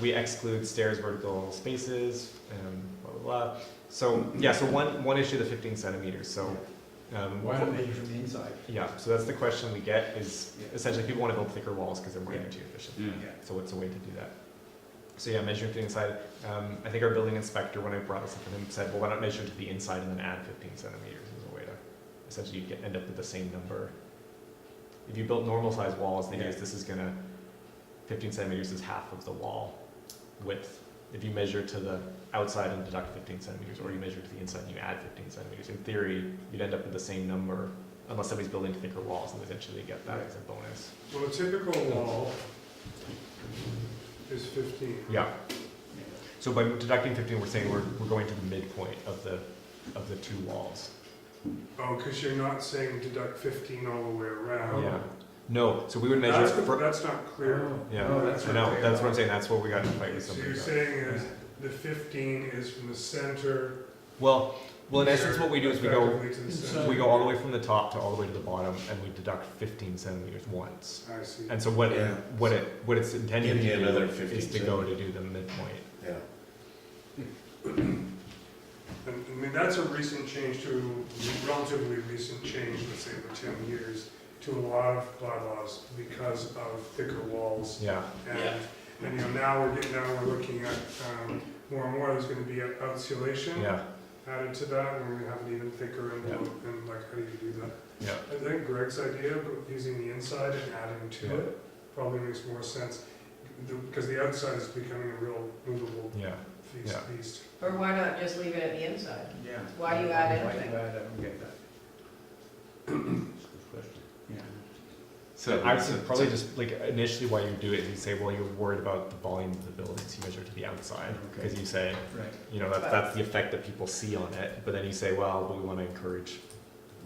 we exclude stairs, vertical spaces, and blah, blah, blah. So, yeah, so one, one issue, the fifteen centimeters, so. um, Why don't they use from the inside? Yeah, so that's the question we get is Yeah. essentially people want to build thicker walls because they're more energy efficient. Yeah. So what's a way to do that? So yeah, measuring to the inside. Um, I think our building inspector, when I brought this up to him, said, well, why not measure to the inside and then add 15 centimeters as a way to, essentially you'd get, end up with the same number. If you built normal sized walls, the idea is this is gonna, 15 centimeters is half of the wall width. If you measure to the outside and deduct 15 centimeters, or you measure to the inside and you add 15 centimeters, in theory, you'd end up with the same number unless somebody's building thicker walls and eventually get that as a bonus. Well, a typical wall is fifteen. Yeah. So by deducting fifteen, we're saying we're, we're going to the midpoint of the, of the two walls. Oh, because you're not saying deduct fifteen all the way around. Yeah. No, so we would measure, That's, fr- that's not clear. yeah, No, Oh, that's I what know, they that's what are. I'm saying, that's what we got in a fight with So somebody you're about. saying is the fifteen is from the center. Well, well, in essence, what we do is we go, effectively to the Inside. center. we go all the way from the top to all the way to the bottom, and we deduct fifteen centimeters once. I see. And so what, it- Yeah. what it, what it's intended Give me to another do 15 is to go to do the midpoint. Yeah. And, I mean, that's a recent change to, relatively recent change, let's say over ten years, to a lot of bylaws because of thicker walls Yeah, And, and you know, now we're getting, now we're looking at, um, more and more, there's gonna be an outsolation yeah, added to that, and we're gonna have an even thicker envelope, and like, how do you do that? yeah, I think Greg's idea of using the inside and adding to it probably makes more sense, because the outside is becoming a real movable yeah, feast, Yeah. beast. Or why not just leave it at the inside? Yeah. Why you add Why anything? you add, I don't get that. Yeah. So I would say probably just like initially why you do it is you say, well, you're worried about the volume of the buildings you measure to the outside Okay. because you say, Right. you know, that's, that's the effect that people see on it. But then you say, well, but we want to encourage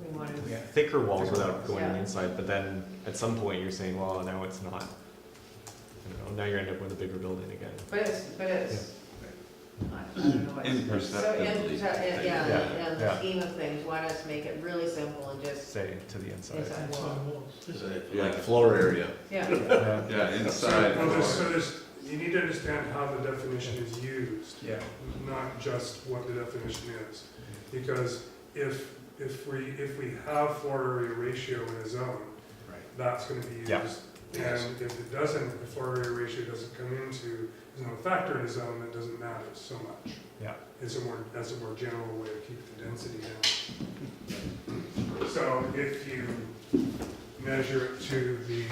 We want to, Yeah. thicker walls without going Yeah. inside. But then at some point you're saying, well, now it's not. I don't know, now you end up with a bigger building again. but it's, but it's, I don't know. it's- So in, so in- yeah, Yeah, in yeah. the scheme of things, why not make it really simple and just Say to the inside. inside wall? Like floor area. Yeah, Yeah. Yeah, So, inside well, there's- So floor. there's, you need to understand how the definition is used. Yeah. not just what the definition is. Because if, if we, if we have floor area ratio in a zone, Right. that's gonna be used. Yeah. Yes. And if it doesn't, if the floor area ratio doesn't come into, there's no factor in a zone, that doesn't matter so much. Yeah. It's a more, that's a more general way to keep the density down. So if you measure it to the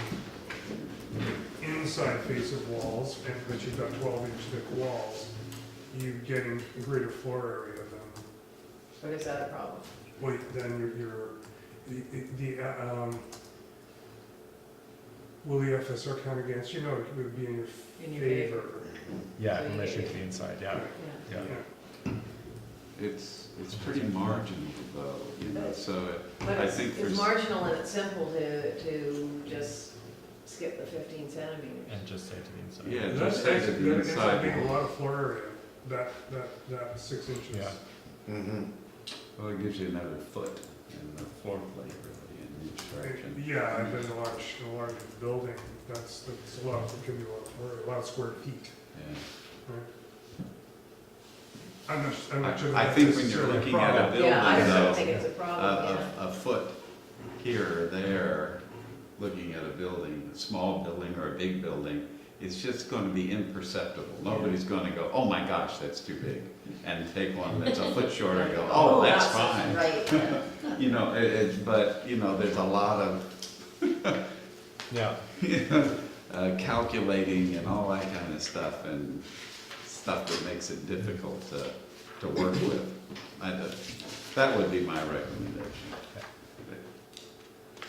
inside face of walls, and but you've got twelve inch thick walls, you get a greater floor area than, but is that a problem? well, then your, your, the, the, uh, um, will the FSR count against you? No, it would be in your In your favor. Yeah, and measure to the inside. Yeah. Yeah. Yeah. It's, it's pretty marginal though, you know, so But I it's, think for s- it's marginal and it's simple to, to just skip the fifteen centimeters. And just say to the inside. Yeah. And just That's, say that's, to the that's a inside big, a wall. lot of floor area, that, that, that six inches. Yeah. Mm-hmm. well, it gives you another foot and a floor plate really in each direction. Yeah, I've been in a large, a large building, that's, that's a lot, it can be a lot, of floor- a lot of square feet. Yeah. I'm not, I'm not sure. I- I that think that's when you're necessarily a looking at problem. a Yeah, I Building, though, don't think it's a A, problem, a, Oh, yeah. a foot here or there, looking at a building, a small building or a big building, it's just gonna be imperceptible. Nobody's gonna go, oh my gosh, that's too big, and take one that's a foot shorter and go, oh, that's fine. Right, yeah. You know, it, it, but, you know, there's a lot of Yeah. uh, calculating and all that kind of stuff and stuff that makes it difficult to, to work with. I, don't- that would be my recommendation.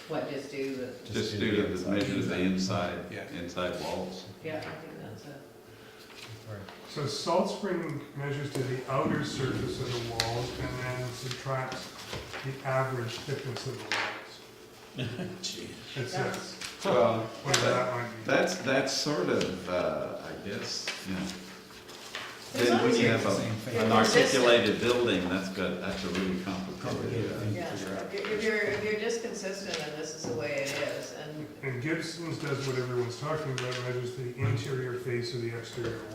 What, just do the, Just do the measure of the inside, Yeah. inside walls. yeah, I think that's a. So salt spring measures to the outer surface of the walls and then subtracts the average thickness of the walls. It says, Well, whatever that might be. that's, that's sort of, uh, I guess, you know. As Then long when as you you're have a- you're an consistent. articulated building, that's good, that's a really complicated. uh, Yeah, if you're- if you're, if you're just consistent and this is the way it is, and And Gibson's does what everyone's talking about, measures the interior face of the exterior wall.